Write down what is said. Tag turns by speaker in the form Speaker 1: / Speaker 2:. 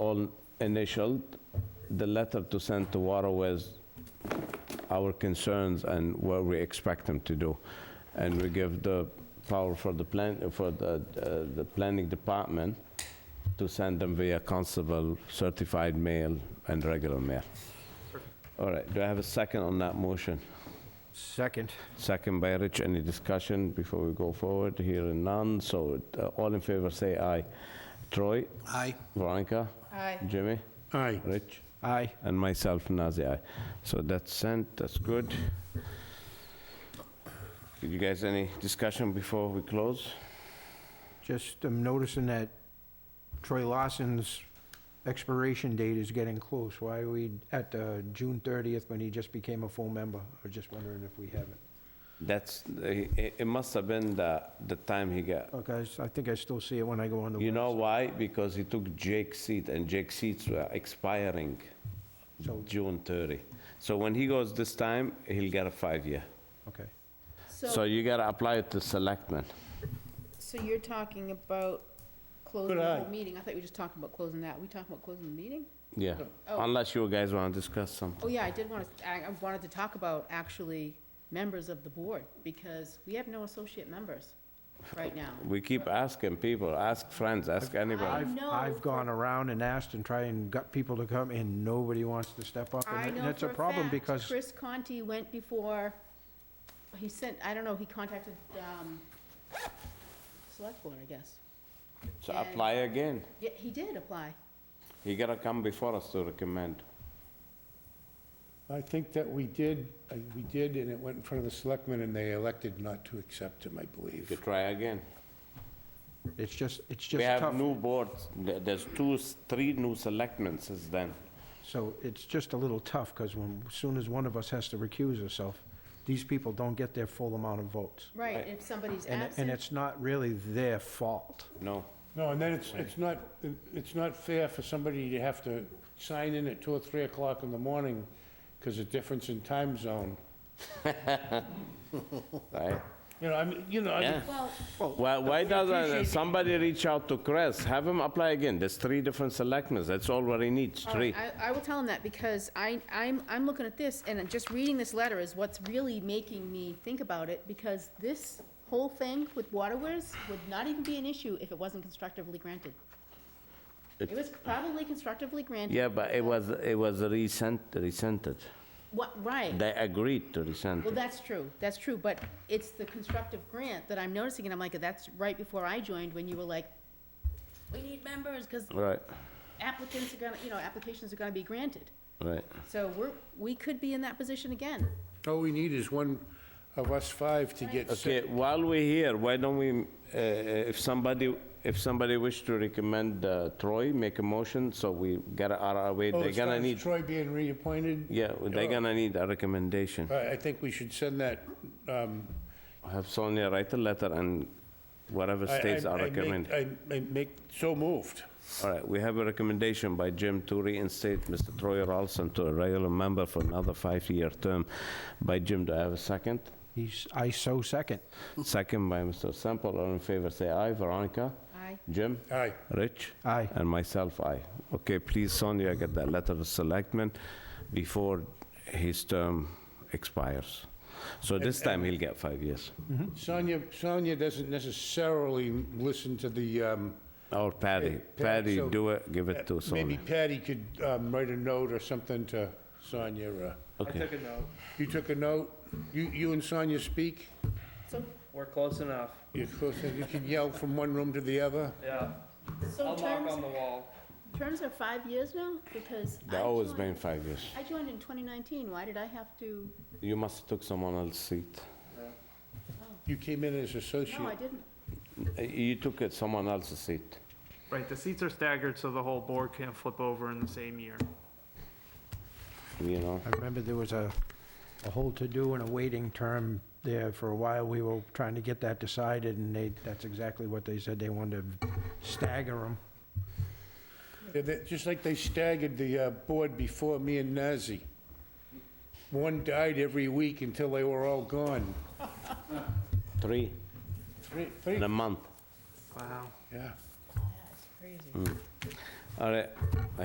Speaker 1: all initialed, the letter to send to Waterways, our concerns and what we expect them to do. And we give the power for the plan, for the, uh, the planning department to send them via constable, certified mail, and regular mail. All right, do I have a second on that motion?
Speaker 2: Second.
Speaker 1: Second by Rich, any discussion before we go forward? Hearing none, so uh, all in favor, say aye. Troy?
Speaker 3: Aye.
Speaker 1: Veronica?
Speaker 4: Aye.
Speaker 1: Jimmy?
Speaker 3: Aye.
Speaker 1: Rich?
Speaker 2: Aye.
Speaker 1: And myself, Nazir, aye. So that's sent, that's good. Did you guys any discussion before we close?
Speaker 2: Just, I'm noticing that Troy Lawson's expiration date is getting close. Why are we at uh, June 30th when he just became a full member? I was just wondering if we have it.
Speaker 1: That's, it it must have been the, the time he got.
Speaker 2: Okay, Oh, I s- I think I still see it when I go on the
Speaker 1: You know
Speaker 2: website.
Speaker 1: why? Because he took Jake's seat, and Jake's seats were expiring
Speaker 2: So-
Speaker 1: June 30. So when he goes this time, he'll get a five-year.
Speaker 2: Okay.
Speaker 1: So
Speaker 4: So,
Speaker 1: you gotta apply it to selectmen.
Speaker 4: so you're talking about closing the whole meeting? I thought we were just talking about closing that. We talking about closing the meeting?
Speaker 1: Yeah,
Speaker 4: Oh.
Speaker 1: unless you guys wanna discuss something.
Speaker 4: Oh, yeah, I did want to, I I wanted to talk about actually members of the board, because we have no associate members right now.
Speaker 1: We keep asking people, ask friends, ask anybody.
Speaker 2: I've,
Speaker 4: know
Speaker 2: I've gone
Speaker 4: for-
Speaker 2: around and asked and tried and got people to come, and nobody wants to step up. and
Speaker 4: I
Speaker 2: it-
Speaker 4: know
Speaker 2: And it's a
Speaker 4: for
Speaker 2: problem
Speaker 4: fact
Speaker 2: because,
Speaker 4: Chris Conti went before, he sent, I don't know, he contacted, um, select board, I guess.
Speaker 1: So apply again.
Speaker 4: Yeah, he did apply.
Speaker 1: You gotta come before us to recommend.
Speaker 3: I think that we did, uh, we did, and it went in front of the selectmen, and they elected not to accept him, I
Speaker 1: You could
Speaker 3: believe.
Speaker 1: try again.
Speaker 2: it's just, it's
Speaker 1: We
Speaker 2: just
Speaker 1: have
Speaker 2: tough.
Speaker 1: new boards, There- there's two, s- three new selectmen since then.
Speaker 2: So it's just a little tough, because when, as soon as one of us has to recuse herself, these people don't get their full amount of votes.
Speaker 4: Right,
Speaker 1: Right.
Speaker 4: if somebody's
Speaker 2: And, it- and
Speaker 4: absent,
Speaker 2: it's not really their fault.
Speaker 1: No,
Speaker 3: No, and then it's, it's not, it's not fair for somebody to have to sign in at two or three o'clock in the morning because of difference in time zone.
Speaker 1: right?
Speaker 3: You know, I mean, you know, I mean,
Speaker 1: Yeah.
Speaker 4: well,
Speaker 1: Why,
Speaker 4: Oh,
Speaker 1: why doesn't somebody reach out to Chris, have him apply again? There's three different selectmen, that's all what he needs,
Speaker 4: All
Speaker 1: three.
Speaker 4: right, Oh, I, I will tell him that because I, I'm, I'm looking at this and just reading this letter is what's really making me think about it because this whole thing with waterways would not even be an issue if it wasn't constructively granted. It was probably constructively granted.
Speaker 1: Yeah, but it was, it was resent, resented.
Speaker 4: What, right.
Speaker 1: They agreed to resent
Speaker 4: Well,
Speaker 1: it.
Speaker 4: that's true, that's true, but it's the constructive grant that I'm noticing and I'm like, that's right before I joined when you were like, we need members because
Speaker 1: Right,
Speaker 4: applicants are gonna, you know, applications are gonna be granted.
Speaker 1: right.
Speaker 4: So we're, we could be in that position again.
Speaker 3: all we need is one of us five to get
Speaker 1: Okay,
Speaker 3: sick.
Speaker 1: while we're here, why don't we, uh, if somebody, if somebody wish to recommend uh, Troy, make a motion, so we get out of our way,
Speaker 3: Oh,
Speaker 1: they're
Speaker 3: as far
Speaker 1: gonna
Speaker 3: as
Speaker 1: need,
Speaker 3: Troy being reappointed?
Speaker 1: yeah, they're gonna need a recommendation.
Speaker 3: I, I think we should send that, um,
Speaker 1: Have Sonia write a letter and whatever
Speaker 3: I- I-
Speaker 1: states are
Speaker 3: I make-
Speaker 1: recommended.
Speaker 3: I I make, so moved.
Speaker 1: All right, we have a recommendation by Jim to reinstate Mr. Troy Ralston to a regular member for another five-year term. By Jim, do I have a second?
Speaker 2: He's, I so second.
Speaker 3: Mm.
Speaker 1: Second by Mr. Sample, all in favor, say aye. Veronica?
Speaker 4: Aye.
Speaker 1: Jim?
Speaker 3: Aye.
Speaker 1: Rich?
Speaker 2: Aye.
Speaker 1: And myself, aye. Okay, please, Sonia, get that letter to selectmen before his term expires. So this
Speaker 3: uh,
Speaker 1: time, he'll get five years.
Speaker 3: Sonia, Sonia doesn't necessarily listen to the, um,
Speaker 1: Or Patty,
Speaker 3: Pat,
Speaker 1: Patty,
Speaker 3: so,
Speaker 1: do it, give it to
Speaker 3: maybe
Speaker 1: Sonia.
Speaker 3: Patty could um, write a note or something to Sonia. uh,
Speaker 1: Okay.
Speaker 5: Took a note.
Speaker 3: You took a note? You, you and Sonia speak?
Speaker 4: So,
Speaker 5: We're close enough.
Speaker 3: You're close, enough. you can yell from one room to the other?
Speaker 5: Yeah.
Speaker 4: so
Speaker 5: I'll knock
Speaker 4: terms,
Speaker 5: on the wall.
Speaker 4: terms are five years now, because I
Speaker 1: They always
Speaker 4: joined,
Speaker 1: been five years.
Speaker 4: I joined in twenty nineteen, why did I have to,
Speaker 1: You must took someone else's seat.
Speaker 3: You came in as
Speaker 4: no, I
Speaker 3: associate.
Speaker 4: didn't.
Speaker 1: Uh, You took it someone else's seat.
Speaker 6: Right, the seats are staggered so the whole board can't flip over in the same year.
Speaker 1: you know.
Speaker 2: I remember there was a, a whole to-do and a waiting term there for a while. We were trying to get that decided, and they, that's exactly what they said. They wanted to stagger them.
Speaker 3: Yeah, that- Just like they staggered the uh, board before me and Nazi. One died every week until they were all gone.
Speaker 1: Three
Speaker 3: Three, three,
Speaker 1: in a month.
Speaker 6: Wow.
Speaker 3: yeah.
Speaker 4: That's crazy.
Speaker 1: All right,